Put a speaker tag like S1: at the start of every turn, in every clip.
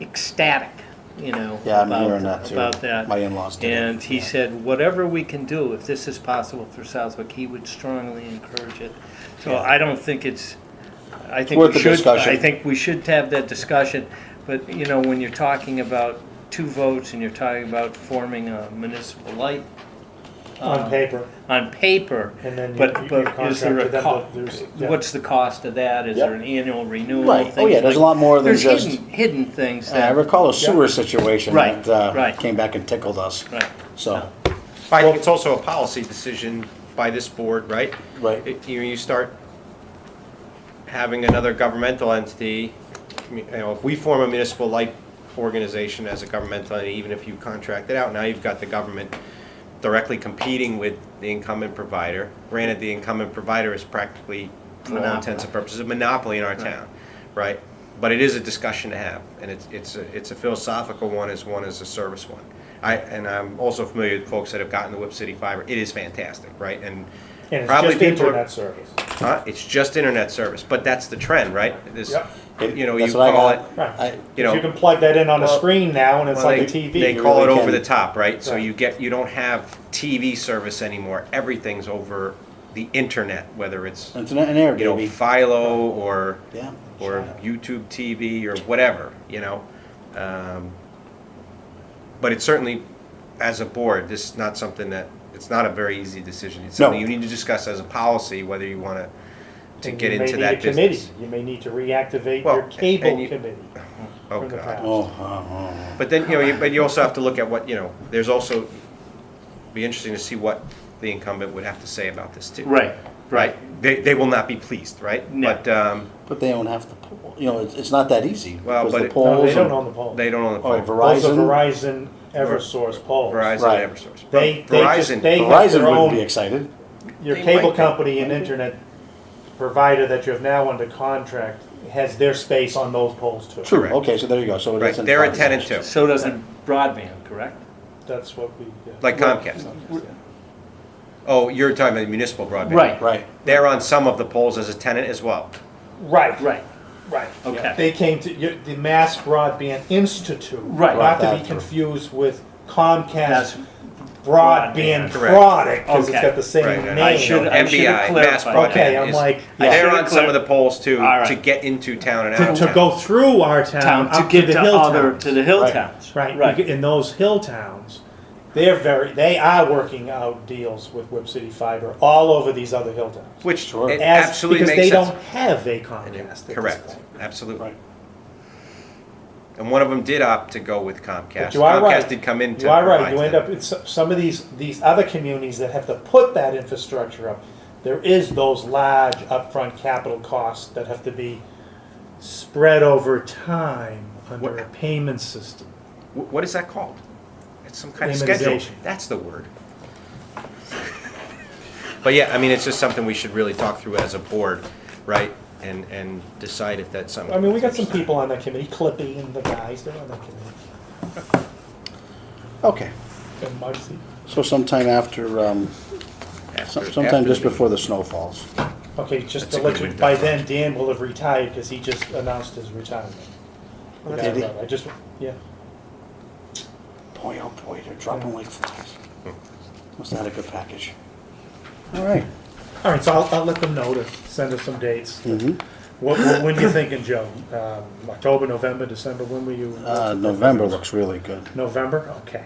S1: ecstatic, you know,
S2: Yeah, I'm
S1: about,
S2: hearing that too.
S1: about that.
S2: My in-laws did it.
S1: And he said, whatever we can do, if this is possible for Southwick, he would strongly encourage it. So I don't think it's, I think
S2: Worth
S1: we
S2: the
S1: should,
S2: discussion.
S1: I think we should have that discussion. But, you know, when you're talking about two votes and you're talking about forming a municipal light
S3: Um,
S4: on paper,
S1: on paper,
S4: and then you-
S1: but,
S4: you-
S1: but
S4: you
S1: is there a
S4: contract with them,
S1: cost?
S4: but there's- yeah.
S1: What's the cost of that? Is
S2: Yep.
S1: there an annual renewal?
S2: Right. Oh,
S1: Things
S2: yeah, there's a
S1: like-
S2: lot more than
S1: There's
S2: just.
S1: hidden, hidden things
S2: Uh, I
S1: that.
S2: recall a sewer situation
S1: Right,
S2: that uh,
S1: right.
S2: came back and tickled us.
S1: Right.
S2: So,
S3: I think it's also a policy decision by this board, right?
S2: Right.
S3: It- You, you start having another governmental entity, you know, if we form a municipal light organization as a governmental entity, even if you contract it out, now you've got the government directly competing with the incumbent provider. Granted, the incumbent provider is practically, for all
S1: Monopoly.
S3: intents and purposes, a monopoly in our town, right? But it is a discussion to have, and it's, it's, a- it's a philosophical one as one as a service one. I, and I'm also familiar with folks that have gotten the Whip City Fiber. It is fantastic, right? And
S4: and it's
S3: probably
S4: just
S3: people are-
S4: internet service.
S3: Huh? It's just internet service, but that's the trend, right? This,
S4: Yep.
S3: you know, you
S2: That's what I
S3: call it,
S2: got.
S4: Right.
S2: I-
S3: you know,
S4: you can plug that in on a
S3: well,
S4: screen now, and it's
S3: well,
S4: like a
S3: they-
S4: TV.
S3: They
S2: you
S3: call it
S2: really
S3: over
S2: can.
S3: the top, right? So
S4: Right.
S3: you get, you don't have TV service anymore. Everything's over the internet, whether it's,
S2: Internet and air,
S3: you know,
S2: baby.
S3: Philo or,
S2: Yeah.
S3: or YouTube TV or whatever, you know? Um, But it's certainly, as a board, this is not something that, it's not a very easy decision. It's
S2: No.
S3: something you need to discuss as a policy, whether you want to, to
S4: And
S3: get
S4: you may
S3: into
S4: need
S3: that
S4: a committee.
S3: business.
S4: You may need to reactivate
S3: Well,
S4: your
S3: and-
S4: cable
S3: and you-
S4: committee.
S3: Oh,
S4: from the
S3: God.
S4: past.
S2: Oh, oh,
S3: But then, you know, you, but you also have to look at what, you know, there's also, be interesting to see what the incumbent would have to say about this too.
S1: Right, right.
S3: Right, they, they will not be pleased, right?
S1: No.
S3: But, um,
S2: oh. But they don't have the poll. You know, it's, it's not that easy.
S3: Well,
S2: because
S3: but
S2: the
S3: it-
S2: polls
S4: No, they don't
S2: and-
S4: own the poll.
S3: they don't own the
S2: Oh,
S3: poll.
S4: Those are
S2: Verizon.
S4: Verizon, EverSource polls.
S3: Verizon,
S2: Right.
S3: and EverSource.
S4: They- they just-
S3: Verizon,
S4: they- have their
S2: Verizon wouldn't
S4: own-
S2: be excited.
S4: Your
S3: They
S4: cable
S3: might-
S4: company and internet provider that you have now under contract has their space on those polls too.
S2: True.
S3: Correct.
S2: Okay, so there you go. So it
S3: right,
S2: isn't
S3: they're a
S2: privatized.
S3: tenant too,
S1: So doesn't broadband, correct?
S4: That's what we. yeah.
S3: like Comcast. Oh, you're talking about municipal broadband.
S1: Right.
S2: Right.
S3: They're on some of the polls as a tenant as well.
S4: Right.
S1: Right.
S4: Right.
S1: Okay.
S4: Yeah. They came to you- the Mass Broadband Institute.
S1: Right.
S4: Not to be
S2: Broadband.
S4: confused with Comcast
S1: That's-
S4: Broadband
S1: Broadband.
S3: Correct.
S4: Product, because it's
S1: Okay.
S4: got the same
S3: Right,
S4: name.
S3: and I
S1: should-
S3: know
S1: I should've
S3: MBI, Mass
S1: clarified.
S4: Okay,
S3: Broadband
S4: I'm
S3: is-
S4: like,
S1: I
S3: They're
S1: should've
S3: on some of the
S1: clar-
S3: polls too,
S1: All right.
S3: to get into town and out
S4: to,
S3: of
S4: to
S3: town.
S4: go through our town,
S1: Town Uh, to
S4: up
S1: get to
S4: the hill
S1: other,
S4: towns.
S1: to the hill
S2: Right.
S1: towns.
S4: Right,
S1: Right.
S4: in those hill towns, they're very, they are working out deals with Whip City Fiber all over these other hill towns.
S3: Which
S2: Sure.
S3: it
S4: As-
S3: absolutely makes sense.
S4: Because they don't have a Comcast. at this
S3: Correct,
S4: point.
S3: absolutely.
S2: Right.
S3: And one of them did opt to go with Comcast.
S4: But you are right.
S3: Comcast did come in to
S4: You are right,
S3: provide
S4: you
S3: to
S4: end
S3: them.
S4: up, in so- some of these, these other communities that have to put that infrastructure up, there is those large upfront capital costs that have to be spread over time under
S3: What-
S4: a payment system.
S3: Wh- What is that called? It's some kind of schedule.
S4: Amortization.
S3: That's the word. But yeah, I mean, it's just something we should really talk through as a board, right? And, and decide if that's something.
S4: I mean, we got some people on that committee, Clippy and the guys, they're on that committee,
S2: Okay.
S4: and Marcy.
S2: So sometime after, um,
S3: After-
S2: some- sometime
S3: after
S2: just
S3: the-
S2: before the snow falls.
S4: Okay, just
S3: That's
S4: to
S3: a
S4: let
S3: good
S4: you,
S3: window.
S4: by then Dan will have retired because he just announced his retirement. The guy
S2: Did he?
S4: wrote, I just, yeah.
S2: Boy, oh boy, they're dropping like flies. Must have had a good package. All right.
S4: All right, so I'll, I'll let them know to send us some dates.
S2: Mhm.
S4: What, what, when you thinking, Joe? Um, October, November, December, when were you?
S2: Uh, November looks really good.
S4: November, okay.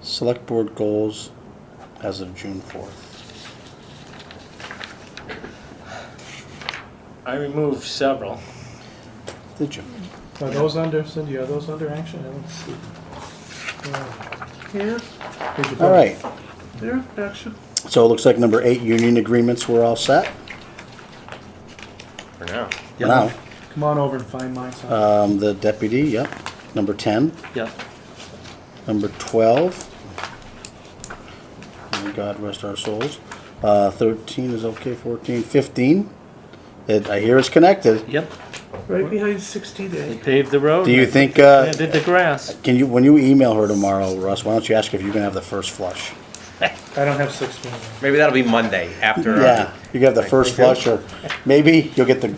S2: Select board goals as of June fourth.
S1: I removed several.
S2: Did you?
S4: Are those under, Cindy, are those under action? I don't see. Here? Did you put
S2: All right.
S4: There, action.
S2: So it looks like number eight, union agreements, we're all set
S3: For now.
S2: for now.
S4: Come on over and find mine. son.
S2: Um, the deputy, yep. Number ten,
S1: Yep.
S2: number twelve. May God rest our souls. Uh, thirteen is okay, fourteen, fifteen. It, I hear it's connected.
S1: Yep.
S5: Right behind 60
S1: They
S5: Day.
S1: paved the road.
S2: Do you
S1: and
S2: think, uh,
S1: Planted the grass.
S2: Can you, when you email her tomorrow, Russ, why don't you ask if you can have the first flush?
S4: I don't have sixteen.
S3: Maybe that'll be Monday after. our-
S2: Yeah, you can have the first flush, or maybe you'll get the